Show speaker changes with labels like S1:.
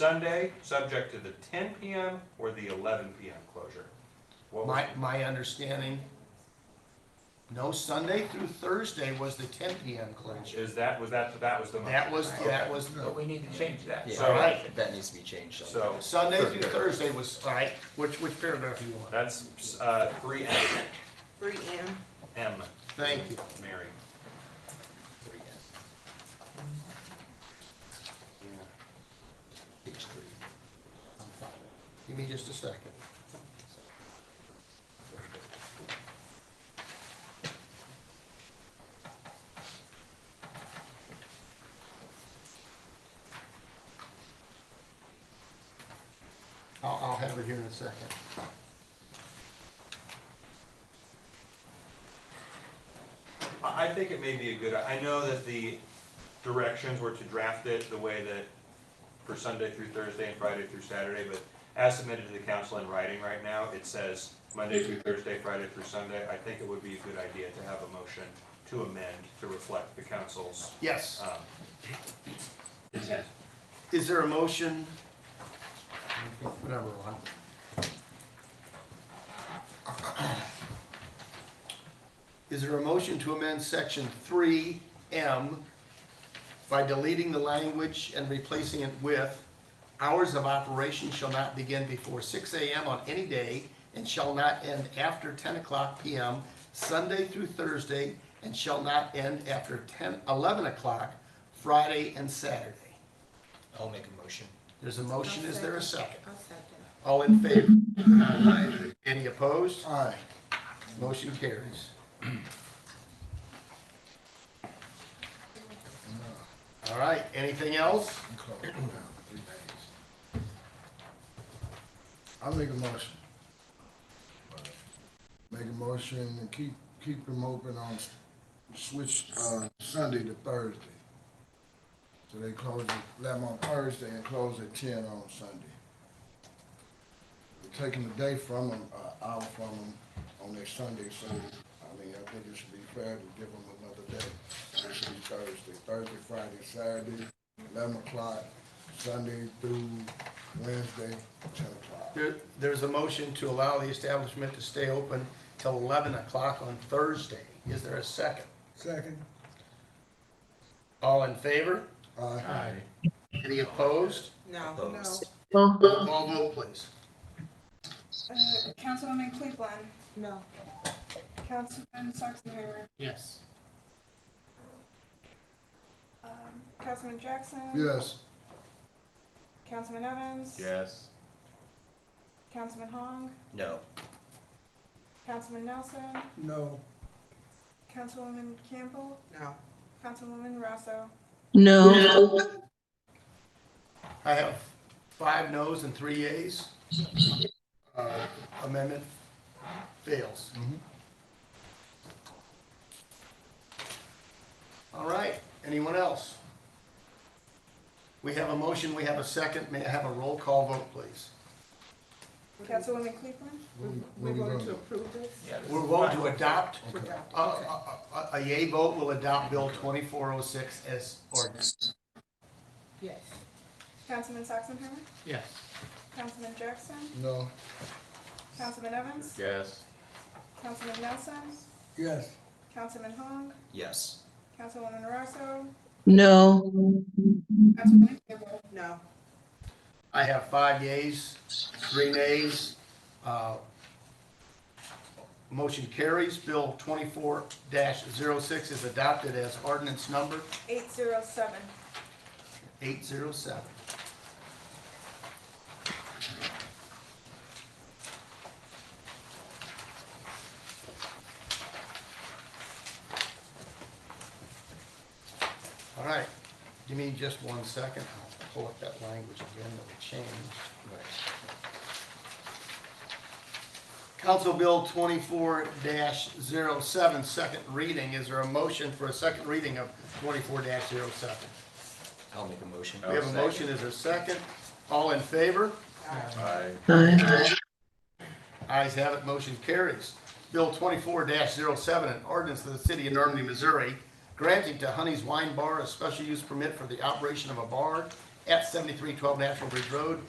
S1: Sunday, subject to the ten PM or the eleven PM closure? What was,
S2: My, my understanding, no, Sunday through Thursday was the ten PM closure.
S1: is that, was that, that was the motion?
S2: That was, that was,
S3: But we need to change that.
S1: So-
S2: right.
S3: That needs to be changed. somehow.
S1: So,
S2: Sunday through Thursday was, all right, which, which paragraph you want?
S1: that's, uh, three M,
S4: Three M.
S1: M,
S2: Thank you.
S1: Mary.
S3: Three, yeah. Page three.
S2: Give me just a second. I'll, I'll have it here in a second.
S1: I, I think it may be a good, I know that the directions were to draft it the way that for Sunday through Thursday and Friday through Saturday, but as submitted to the council in writing right now, it says Monday through Thursday, Friday through Sunday. I think it would be a good idea to have a motion to amend to reflect the council's,
S2: Yes,
S1: um, intent.
S2: is there a motion? Whatever one. Is there a motion to amend section three M by deleting the language and replacing it with hours of operation shall not begin before six AM on any day and shall not end after ten o'clock PM, Sunday through Thursday, and shall not end after 10 11 o'clock, Friday and Saturday?
S3: I'll make a motion.
S2: There's a motion, is there a second?
S4: I'll second.
S2: All in favor? Any opposed? Aye. Motion carries. All right, anything else?
S5: close down three days. I make a motion. Make a motion and keep, keep them open on, s- switch, uh, Sunday to Thursday. So they close at eleven on Thursday and close at ten on Sunday. We're Taking a day from them, uh, hour from them on their Sunday, so, I mean, I think it should be fair to give them another day. It should be Thursday, Thursday, Friday, Saturday, eleven o'clock, Sunday through Wednesday, ten o'clock.
S2: There, there's a motion to allow the establishment to stay open till 11 o'clock on Thursday. Is there a second?
S5: Second.
S2: All in favor?
S5: Aye.
S2: Any opposed?
S4: No, no.
S3: Opposed.
S2: All vote please.
S6: Uh, Councilwoman Cleveland,
S4: No.
S6: Councilman Sachsenheimer,
S2: Yes.
S6: um, Councilman Jackson.
S5: Yes,
S6: Councilman Evans.
S1: Yes.
S6: Councilman Hong,
S3: No.
S6: Councilman Nelson. No. Councilwoman Campbell,
S4: No.
S6: Councilwoman Rosso.
S7: No.
S2: I have five noes and three yeas. Uh, Amendment fails. Mm-hmm. All right, anyone else? We have a motion, we have a second, may I have a roll call vote, please?
S6: Councilwoman Cleveland,
S4: We
S5: we
S4: we voted to
S5: voted.
S4: approve this?
S3: Yeah, this
S2: We're
S3: is
S2: voting
S3: fine.
S2: to adopt,
S4: To adopt,
S2: a,
S4: okay.
S2: a, Uh, a- a yea vote will adopt Bill 2406 as ordinance.
S4: Yes.
S6: Councilman Sachsenheimer,
S2: Yes.
S6: Councilman Jackson,
S5: no,
S6: Councilman Evans.
S1: Yes.
S6: Councilman Nelson,
S5: yes,
S6: Councilman Hong,
S3: Yes.
S6: Councilwoman Rosso,
S7: No.
S6: Councilwoman Campbell,
S4: No.
S2: I have five yeas, three nays. Uh, Motion carries. Bill twenty-four 6 is adopted as ordinance number
S6: eight zero seven.
S2: eight zero seven. All right, give me just one second. I'll pull up that language again that we changed. Council Bill twenty-four 7 second reading. Is there a motion for a second reading of twenty-four 7
S3: I'll make a motion.
S2: We have a motion. Is there a second? All in favor?
S7: Aye.
S2: Ayes have it. Motion carries. Bill twenty-four 7 an ordinance of the city of Normandy, Missouri, granting to Honey's Wine Bar a special use permit for the operation of a bar at seventy-three twelve National Bridge Road